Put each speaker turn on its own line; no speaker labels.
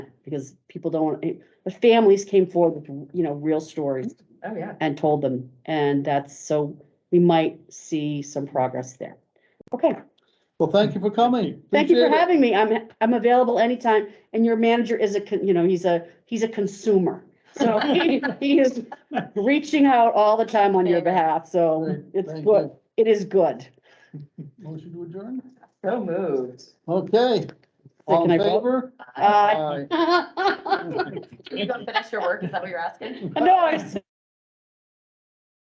because people don't, eh, the families came forward with, you know, real stories
Oh, yeah.
Mm-hmm.
and told them, and that's, so we might see some progress there. Okay,
Well, thank you for coming.
thank you for
Appreciate it.
having me. I'm, I'm available anytime, and your manager is a, con- you know, he's a, he's a consumer. So he he is reaching out all the time on your behalf, so
Thank-
it's
thank
good. It is good.
Motion to adjourn?
So moved.
Okay. All
Second, I
in
vote.
favor?
Uh,
Aye.
You don't finish your work, is that what you're asking?
no, I, s-